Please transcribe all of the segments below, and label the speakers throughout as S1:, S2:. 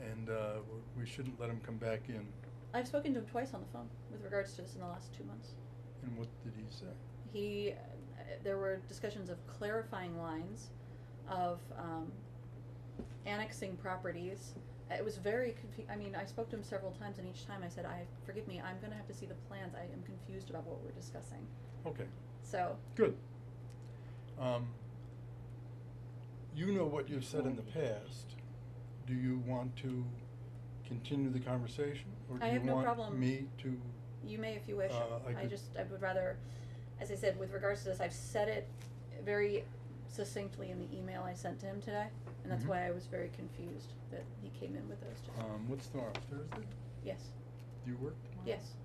S1: and, uh, w- we shouldn't let him come back in.
S2: I've spoken to him twice on the phone with regards to this in the last two months.
S1: And what did he say?
S2: He, uh, there were discussions of clarifying lines, of um, annexing properties. Uh, It was very confu- I mean, I spoke to him several times, and each time I said, "I forgive me, I'm going to have to see the plans. I am confused about what we're discussing."
S1: Okay,
S2: So
S1: good. Um, you know what you've said in the past. Do you want to continue the conversation?
S2: I have no
S1: Or do you want
S2: problem.
S1: me to,
S2: You may if you wish.
S1: Uh, I
S2: I
S1: could-
S2: just, I would rather, as I said, with regards to this, I've said it very succinctly in the email I sent to him today, and that's
S1: Mhm.
S2: why I was very confused that he came in with those today.
S1: um, what's tomorrow, Thursday?
S2: Yes,
S1: Do you work tomorrow?
S2: yes.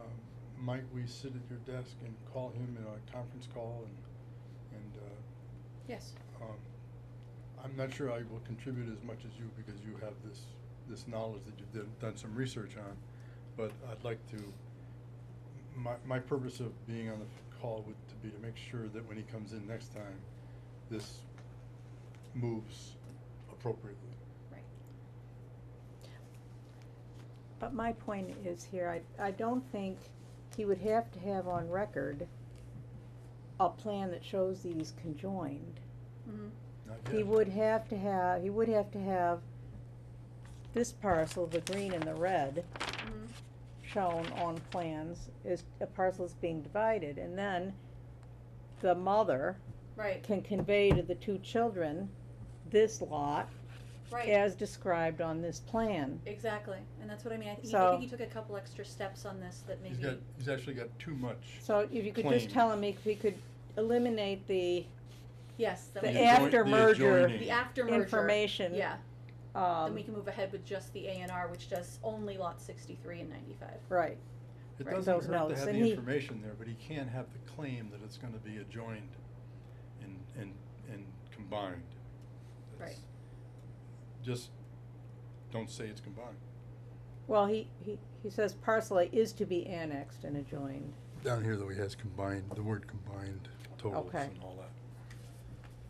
S1: Um, might we sit at your desk and call him in a conference call and, and, uh,
S2: Yes.
S1: um, I'm not sure I will contribute as much as you because you have this, this knowledge that you've done, done some research on. But I'd like to, my, my purpose of being on the call would to be to make sure that when he comes in next time, this moves appropriately.
S2: Right.
S3: But my point is here, I, I don't think he would have to have on record a plan that shows these conjoined.
S2: Mm-hmm.
S1: Not
S3: He
S1: yet.
S3: would have to have, he would have to have this parcel, the green and the red,
S2: Mm-hmm.
S3: shown on plans as a parcel is being divided, and then the mother
S2: Right,
S3: can convey to the two children this lot
S2: right.
S3: as described on this plan.
S2: Exactly. And that's what I mean. I, he, I
S3: So-
S2: think he took a couple extra steps on this that
S1: He's
S2: maybe.
S1: got, he's actually got too much.
S3: So if you could just
S1: Claim.
S3: tell him if he could eliminate the,
S2: Yes, that
S3: The
S2: we
S1: adjoin-
S2: can-
S3: after
S1: the
S3: merger-
S1: adjoining.
S2: The after merger.
S3: information.
S2: Yeah, then we
S3: um,
S2: can move ahead with just the A and R, which does only lot sixty-three and ninety-five.
S3: right,
S1: It
S2: Right.
S1: doesn't
S3: Those
S1: hurt to
S3: notes,
S1: have the
S3: and he-
S1: information there, but he can't have the claim that it's gonna be adjoined and, and, and combined.
S2: Right.
S1: That's- Just don't say it's combined.
S3: well, he, he, he says parcel A is to be annexed and adjoined,
S1: Down here though, he has combined, the word combined totals
S3: Okay.
S1: and all that.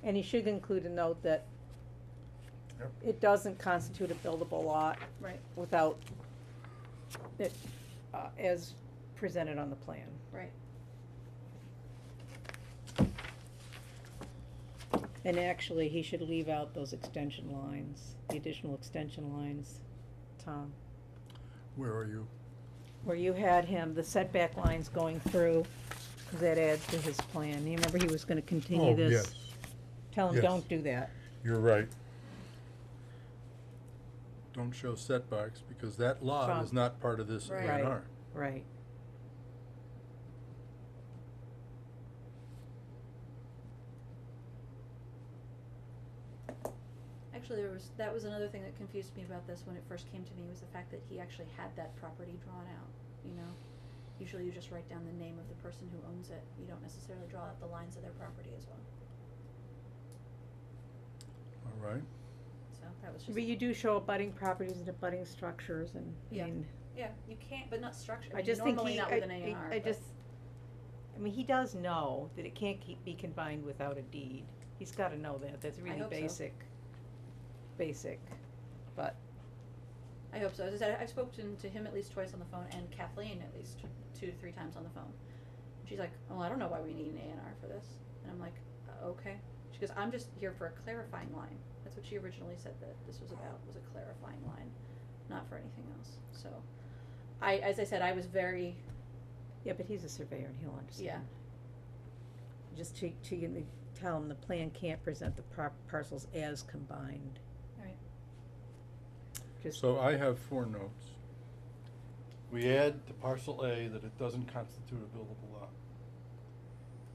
S3: and he should include a note that
S1: Yep.
S3: it doesn't constitute a buildable lot
S2: Right,
S3: without it, uh, as presented on the plan.
S2: right.
S3: And actually, he should leave out those extension lines, the additional extension lines, Tom,
S1: Where are you?
S3: where you had him, the setback lines going through, 'cause that adds to his plan. You remember he was gonna continue this? Tell him,
S1: Oh, Yes.
S3: don't do that.
S1: You're right. Don't show setbacks because that lot
S3: From-
S1: is not part of this A
S2: Right.
S1: and R.
S3: Right.
S2: Actually, there was, that was another thing that confused me about this when it first came to me, was the fact that he actually had that property drawn out, you know? Usually you just write down the name of the person who owns it, you don't necessarily draw out the lines of their property as well,
S1: All right.
S2: so that was just.
S3: But you do show abutting properties and abutting structures and,
S2: Yeah.
S3: I mean,
S2: Yeah, you can't, but not structure, I
S3: I
S2: mean,
S3: just think
S2: normally
S3: he,
S2: not
S3: I,
S2: with an A and
S3: I-
S2: R,
S3: I
S2: but-
S3: just, I mean, he does know that it can't keep, be combined without a deed. He's gotta know that, that's really
S2: hope so.
S3: basic, basic, but,
S2: I hope so. As I said, I- I've spoken to him at least twice on the phone and Kathleen at least two to three times on the phone. And She's like, "Oh, I don't know why we need an A and R for this," and I'm like, uh, "Okay." She goes, "I'm just here for a clarifying line." That's what she originally said that this was about was a clarifying line, not for anything else. So, I, as I said, I was very
S3: yeah, but he's a surveyor and he'll
S2: yeah.
S3: understand. Just to, to you know, tell him the plan can't present the par- parcels as combined,
S2: All right.
S3: just.
S1: So I have four notes. We add to parcel A that it doesn't constitute a buildable lot.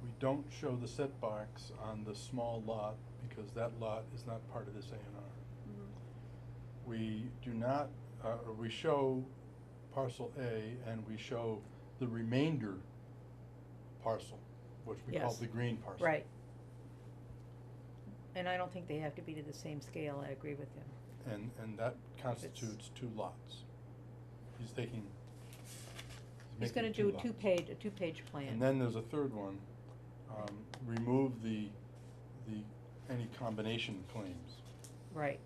S1: We don't show the setbacks on the small lot because that lot is not part of this A and R.
S2: Mm-hmm.
S1: We do not, uh, or we show parcel A and we show the remainder parcel, which we call
S3: Yes.
S1: the green parcel.
S3: Right. And I don't think they have to be to the same scale, I agree with him.
S1: And, and that constitutes two lots. He's taking,
S3: He's
S1: he's
S3: gonna
S1: making
S3: do a
S1: lots.
S3: two-page, a two-page plan.
S1: And then there's a third one, um, remove the, the, any combination claims.
S3: Right,